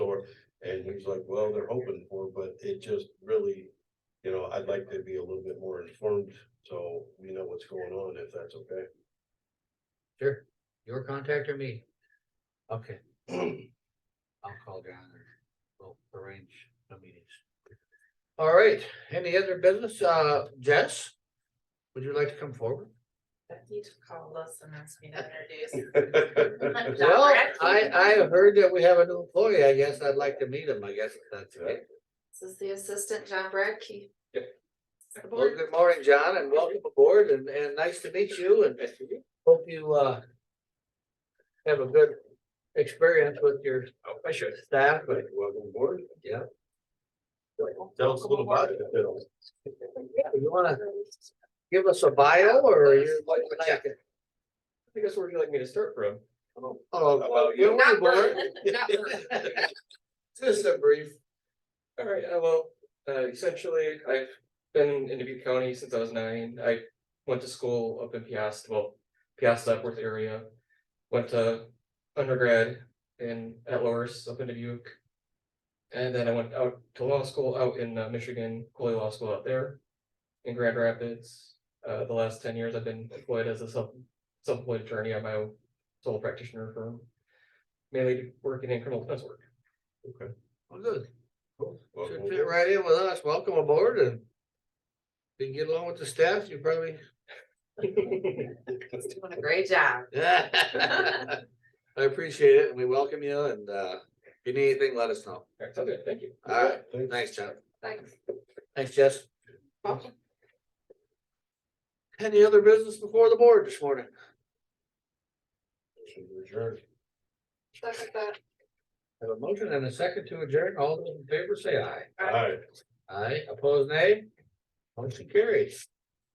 seems like, well, they're hoping for, but it just really, you know, I'd like to be a little bit more informed, so we know what's going on, if that's okay. Sure, your contact or me? Okay, I'll call John or we'll arrange the meetings. All right, any other business? Uh, Jess? Would you like to come forward? Becky called us and asked me to introduce. Well, Directly. I, I heard that we have a new employee. I guess I'd like to meet him. I guess that's it. This is the assistant, John Bradkey. Yep. Well, good morning, John, and welcome aboard and, and nice to meet you and hope you, uh, have a good experience with your I should. staff. and- Welcome aboard. Yeah. Tell us a little about it. You wanna give us a bio or you? I guess where would you like me to start from? Oh, About you you. were born. Just a brief. All right, uh, well, uh, essentially, I've been in Dubuque County since I was nine. I went to school up in Piast, well, Piast Upworth area. Went to undergrad in at Loris up in Dubuque. And then I went out to law school out in uh, Michigan, Coley Law School out there in Grand Rapids. Uh, the last ten years I've been employed as a self, self-employed attorney at my own sole practitioner firm. Mainly working in criminal defense work. Well, Good. Welcome Should fit aboard. right in with us. Welcome aboard and if you can get along with the staff, you probably. He's doing a great job. I appreciate it and we welcome you and uh, if you need anything, let us know. Alright, sounds good, thank you. All right, Thanks. thanks, John. Thanks. Thanks, Jess. Any other business before the board this morning? Should we adjourn? Second that. Have a motion and a second to adjourn. All those in favor say aye. All right. Aye, opposed nay? Motion carries.